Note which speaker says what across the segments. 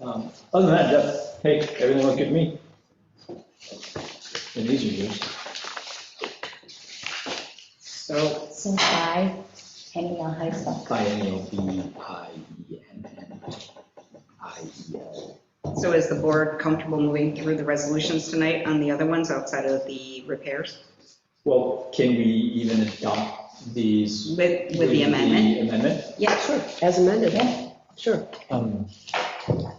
Speaker 1: Um, Other than that, Jeff, hey, everything looked good to me. And these are yours.
Speaker 2: So
Speaker 3: So high, hanging out high stuff.
Speaker 1: Biennial, B I E N N I E L.
Speaker 2: So is the board comfortable moving through the resolutions tonight on the other ones outside of the repairs
Speaker 1: Well, can we even adopt these?
Speaker 2: with, with the amendment?
Speaker 1: amendment?
Speaker 2: Yeah, sure.
Speaker 4: As amended, sure.
Speaker 5: Um,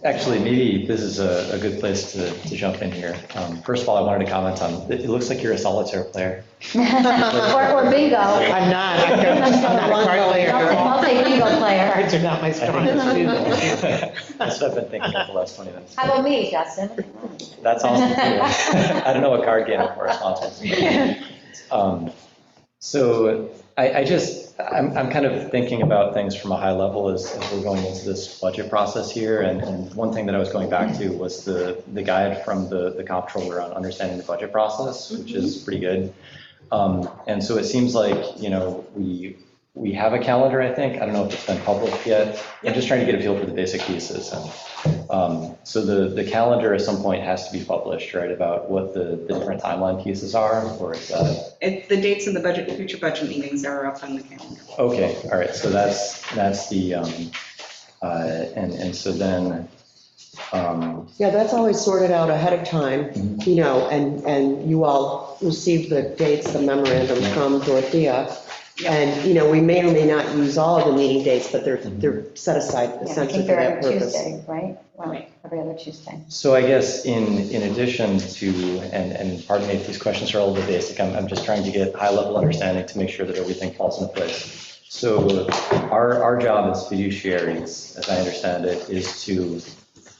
Speaker 5: Actually, maybe this is a, a good place to, to jump in here. Um, First of all, I wanted to comment on, it it looks like you're a solitaire player.
Speaker 3: Or or bingo.
Speaker 6: I'm not, I'm not a card player.
Speaker 3: I'll take bingo player.
Speaker 6: Cards are not my
Speaker 5: I think
Speaker 6: strongest suit.
Speaker 5: That's that's what I've been thinking of the last 20 minutes.
Speaker 3: How about me, Justin?
Speaker 5: That's awesome. too. I don't know what card game I'm responsible for. Um, So I, I just, I'm, I'm kind of thinking about things from a high level as, as we're going into this budget process here. And, and one thing that I was going back to was the, the guide from the, the comptroller on understanding the budget process, which is pretty good. Um, And so it seems like, you know, we, we have a calendar, I think. I don't know if it's been public yet. I'm just trying to get a feel for the basic pieces. And um, So the, the calendar at some point has to be published, right, about what the, the different timeline pieces are, or is that?
Speaker 2: It- The dates of the budget, future budget meetings are up on the calendar.
Speaker 5: Okay, all right, so that's, that's the, um, uh, and, and so then, um,
Speaker 4: Yeah, that's always sorted out ahead of time, you know, and, and you all receive the dates, the memorandum from Dorothea. And, you know, we may or may not use all of the meeting dates, but they're,
Speaker 5: Mm-hmm.
Speaker 4: they're set aside
Speaker 3: Yeah, I
Speaker 4: essentially
Speaker 3: think they're
Speaker 4: for that
Speaker 3: every
Speaker 4: purpose.
Speaker 3: Tuesday, right? Well, every other Tuesday.
Speaker 5: so I guess in, in addition to, and, and pardon me if these questions are a little bit basic, I'm, I'm just trying to get high-level understanding to make sure that everything falls into place. So our, our job as fiduciaries, as I understand it, is to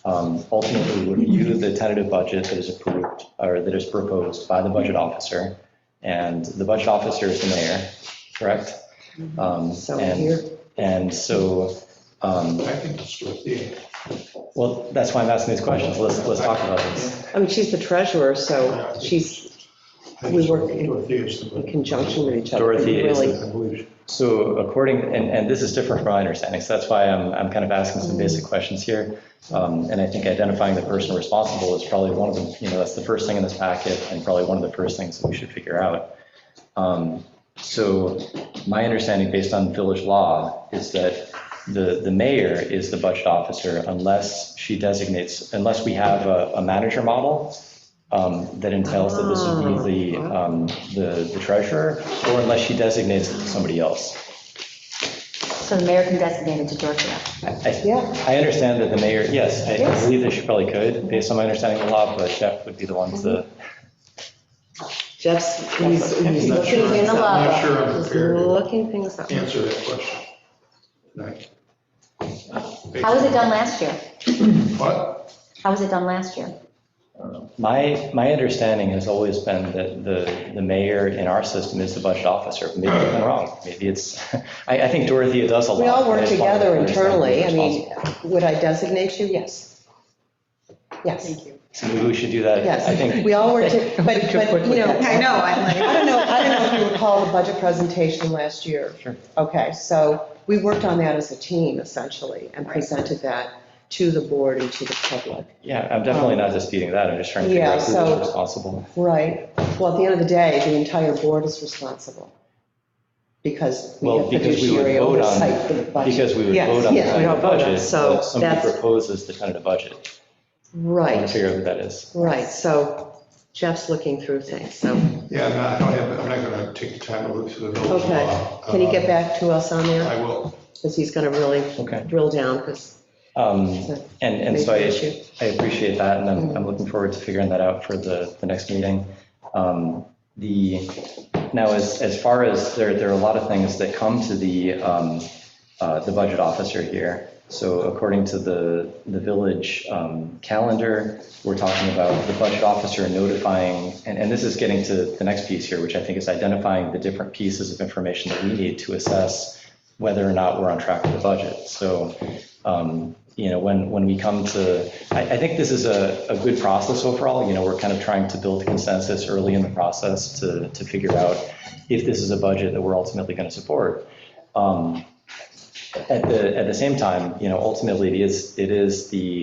Speaker 5: um, ultimately review the tentative budget that is approved, or that is proposed by the budget officer. And the budget officer is the mayor, correct? Um,
Speaker 4: Mm-hmm. So
Speaker 5: and-
Speaker 4: here,
Speaker 5: And so, um,
Speaker 7: I think it's worth the,
Speaker 5: well, that's why I'm asking these questions. Let's, let's talk about this.
Speaker 4: I mean, she's the treasurer, so she's
Speaker 7: I think it's
Speaker 4: We work
Speaker 7: worth
Speaker 4: in-
Speaker 7: Dorothea's the-
Speaker 4: in conjunction with each other.
Speaker 5: Dorothy is
Speaker 4: Really.
Speaker 7: I believe.
Speaker 5: So according, and, and this is different from my understanding, so that's why I'm, I'm kind of asking some basic questions here. Um, And I think identifying the person responsible is probably one of the, you know, that's the first thing in this packet and probably one of the first things that we should figure out. Um, So my understanding, based on village law, is that the, the mayor is the budget officer unless she designates, unless we have a, a manager model um, that entails that this would be the, um, the the treasurer, or unless she designates it to somebody else.
Speaker 3: So the mayor can designate it to Dorothea.
Speaker 5: I,
Speaker 4: Yeah,
Speaker 5: I understand that the mayor, yes, I- I
Speaker 4: Yes.
Speaker 5: believe that she probably could, based on my understanding of the law, but Jeff would be the one to,
Speaker 4: Jeff's, he's he's
Speaker 5: I'm not
Speaker 4: looking
Speaker 3: sure.
Speaker 4: things
Speaker 3: I'm
Speaker 4: up.
Speaker 3: not
Speaker 7: sure I'm
Speaker 4: He's
Speaker 7: prepared to-
Speaker 4: Looking things up.
Speaker 7: Answer that question. tonight.
Speaker 3: How was it done last year?
Speaker 7: What?
Speaker 3: How was it done last year?
Speaker 4: Mm-hmm.
Speaker 5: my, my understanding has always been that the, the mayor in our system is the budget officer. Maybe I'm wrong, maybe it's, I, I think Dorothea does a
Speaker 4: Mm-hmm.
Speaker 5: lot.
Speaker 4: We all
Speaker 5: I
Speaker 4: work
Speaker 5: just wanted to
Speaker 4: together
Speaker 5: understand
Speaker 4: internally.
Speaker 5: who's
Speaker 4: I mean, would I designate you? Yes. Yes,
Speaker 2: Thank you.
Speaker 5: responsible. So maybe we should do that. I
Speaker 4: yes.
Speaker 5: think,
Speaker 4: We all work, to- but, but, you know,
Speaker 2: I know, I'm like.
Speaker 4: I don't know, I don't know if you recall the budget presentation last year.
Speaker 5: Sure.
Speaker 4: Okay, so we worked on that as a team essentially and presented that to the board and to the public.
Speaker 5: yeah, I'm definitely not disputing that, I'm just trying to figure
Speaker 4: um, Yeah,
Speaker 5: out who
Speaker 4: so-
Speaker 5: is responsible.
Speaker 4: Right. Well, at the end of the day, the entire board is responsible because we
Speaker 5: Well,
Speaker 4: have
Speaker 5: because we would
Speaker 4: fiduciary
Speaker 5: vote
Speaker 4: oversight for the
Speaker 5: on,
Speaker 4: budget.
Speaker 5: because we would
Speaker 4: Yes,
Speaker 5: vote on the
Speaker 4: yes, we don't
Speaker 5: tentative
Speaker 4: vote on it,
Speaker 5: budget,
Speaker 4: so
Speaker 5: but somebody
Speaker 4: that's-
Speaker 5: proposes the tentative budget. I want to
Speaker 4: Right,
Speaker 5: figure out who that is.
Speaker 4: right. So Jeff's looking through things, so
Speaker 7: Yeah, I'm not- I don't have, I'm not going to take the time to look through the village
Speaker 4: Okay.
Speaker 7: law.
Speaker 4: can you get
Speaker 7: Um,
Speaker 4: back to us on that?
Speaker 7: I will.
Speaker 4: Because he's going to really
Speaker 5: Okay.
Speaker 4: drill down because
Speaker 5: Um,
Speaker 4: it's a
Speaker 5: And, and
Speaker 4: major
Speaker 5: so I,
Speaker 4: issue. Mm-hmm.
Speaker 5: I appreciate that, and I'm, I'm looking forward to figuring that out for the, the next meeting. Um, The, now, as, as far as, there, there are a lot of things that come to the, um, uh, the budget officer here. So according to the, the village um, calendar, we're talking about the budget officer notifying, and, and this is getting to the next piece here, which I think is identifying the different pieces of information that we need to assess whether or not we're on track with the budget. So um, you know, when, when we come to, I, I think this is a, a good process overall, you know, we're kind of trying to build consensus early in the process to, to figure out if this is a budget that we're ultimately going to support. Um, At the, at the same time, you know, ultimately, it is, it is the